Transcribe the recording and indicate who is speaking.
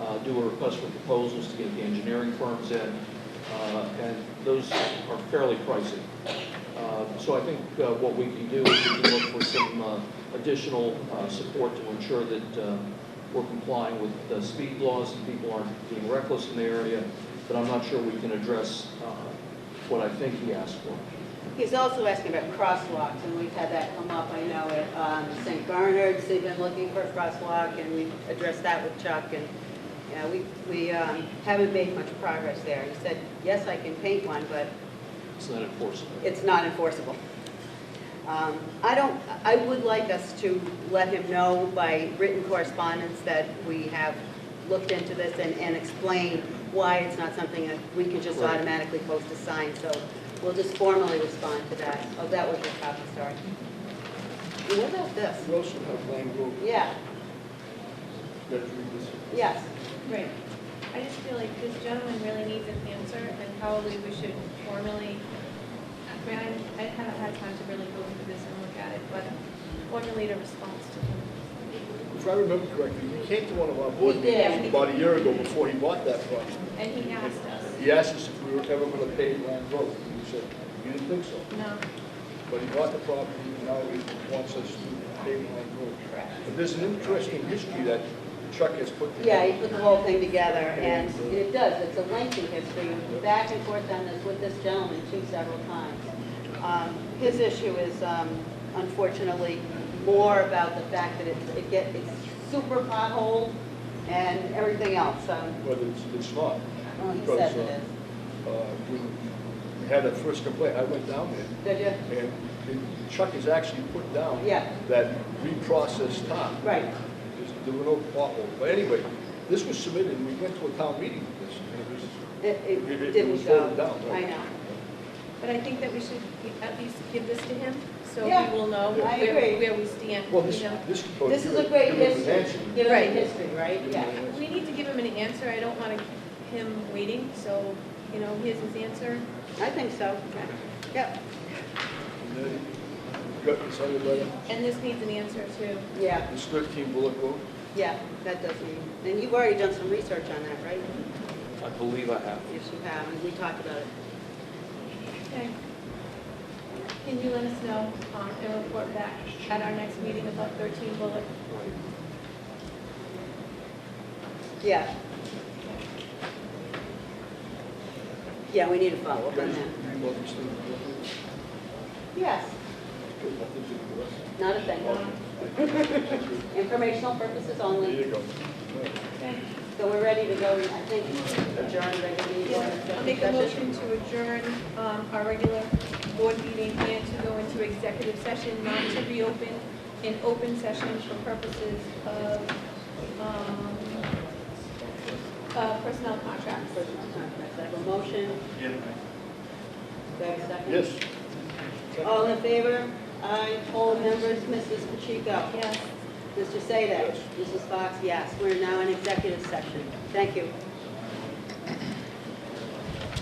Speaker 1: uh, do a request for proposals to get the engineering firms in, uh, and those are fairly pricey. Uh, So I think uh, what we can do is we can look for some uh, additional uh, support to ensure that uh, we're complying with the speed laws and people aren't being reckless in the area, but I'm not sure we can address uh, what I think he asked for.
Speaker 2: He's also asking about crosswalks, and we've had that come up, I know, at um, St. Bernard's, they've been looking for a crosswalk, and we addressed that with Chuck, and, you know, we, we um, haven't made much progress there. He said, yes, I can paint one, but
Speaker 1: It's not enforceable.
Speaker 2: it's not enforceable. Um, I don't, I would like us to let him know by written correspondence that we have looked into this and, and explain why it's not something that we can just
Speaker 1: Right.
Speaker 2: automatically post a sign, so we'll just formally respond to that. Oh, that was your copy, sorry. And What about this?
Speaker 3: You also have land group
Speaker 2: Yeah,
Speaker 3: that we just-
Speaker 2: yes,
Speaker 4: Right. I just feel like this gentleman really needs an answer, and probably we should formally, I mean, I I haven't had time to really go through this and look at it, but formulate a response to him.
Speaker 3: If I remember correctly, he came to one of our board
Speaker 2: He did.
Speaker 3: meetings about a year ago before he bought that property.
Speaker 4: And he asked us.
Speaker 3: He asked us if we were ever going to pay land road. And we said, we didn't think so.
Speaker 4: No.
Speaker 3: But he bought the property and now he wants us to pay land road. But there's an interesting history that Chuck has put together.
Speaker 2: yeah, he put the whole thing together, and it does, it's a lengthy history, back and forth on this with this gentleman too several times. Um, His issue is um, unfortunately more about the fact that it's- it gets, it's super potholed and everything else, so,
Speaker 3: But it's, it's not.
Speaker 2: well, Oh, he
Speaker 3: because,
Speaker 2: says it
Speaker 3: uh,
Speaker 2: is.
Speaker 3: uh, when we had that first complaint, I went down there,
Speaker 2: Did you?
Speaker 3: and Chuck has actually put down
Speaker 2: Yeah.
Speaker 3: that reprocessed top.
Speaker 2: Right,
Speaker 3: There's- There were no potholes. But anyway, this was submitted, and we went to a town meeting with this, and it was,
Speaker 2: it,
Speaker 3: It-
Speaker 2: it
Speaker 3: it
Speaker 2: didn't
Speaker 3: was
Speaker 2: go,
Speaker 3: voted down,
Speaker 2: I
Speaker 3: right.
Speaker 2: know,
Speaker 4: But I think that we should at least give this to him, so
Speaker 2: Yeah,
Speaker 4: he will know
Speaker 2: I
Speaker 4: where,
Speaker 2: agree.
Speaker 4: where we stand,
Speaker 3: well,
Speaker 4: you
Speaker 3: this,
Speaker 4: know?
Speaker 3: this.
Speaker 2: this is a great
Speaker 3: it was
Speaker 2: history,
Speaker 3: answered.
Speaker 2: given
Speaker 4: Right.
Speaker 2: the history, right, yeah.
Speaker 4: We need to give him an answer, I don't want to keep him waiting, so, you know, here's his answer.
Speaker 2: I think so, yep,
Speaker 3: And then we Got this other letter,
Speaker 4: And this needs an answer too.
Speaker 2: yeah.
Speaker 3: this thirteen bullet road.
Speaker 2: Yeah, that does mean, and you've already done some research on that, right?
Speaker 1: I believe I have.
Speaker 2: Yes, you have, and we talked about it.
Speaker 4: Okay. Can you let us know um, and report back at our next meeting about 13 Bullock?
Speaker 2: Yeah. Yeah, we need a follow-up on
Speaker 3: Guys,
Speaker 2: that.
Speaker 3: you want this thing to go through?
Speaker 2: Yes.
Speaker 3: Good, nothing's in the rest.
Speaker 2: Not a thing.
Speaker 3: Thank you.
Speaker 2: Informational purposes
Speaker 3: There
Speaker 2: only.
Speaker 3: you go.
Speaker 4: Okay.
Speaker 2: So we're ready to go, I think, adjourn regular meeting.
Speaker 4: I'll make a motion to adjourn um, our regular board meeting and to go into executive session, not to reopen an open session for purposes of um, uh, personnel contracts.
Speaker 2: Personal contracts. I have a motion. Do I have a second?
Speaker 3: Yes.
Speaker 2: All in favor? Aye. All members, Mrs. Pacheco?
Speaker 4: Yes.
Speaker 2: Mr. Sadek?
Speaker 3: Yes.
Speaker 2: Mrs. Fox, yes. We're now in executive session. Thank you.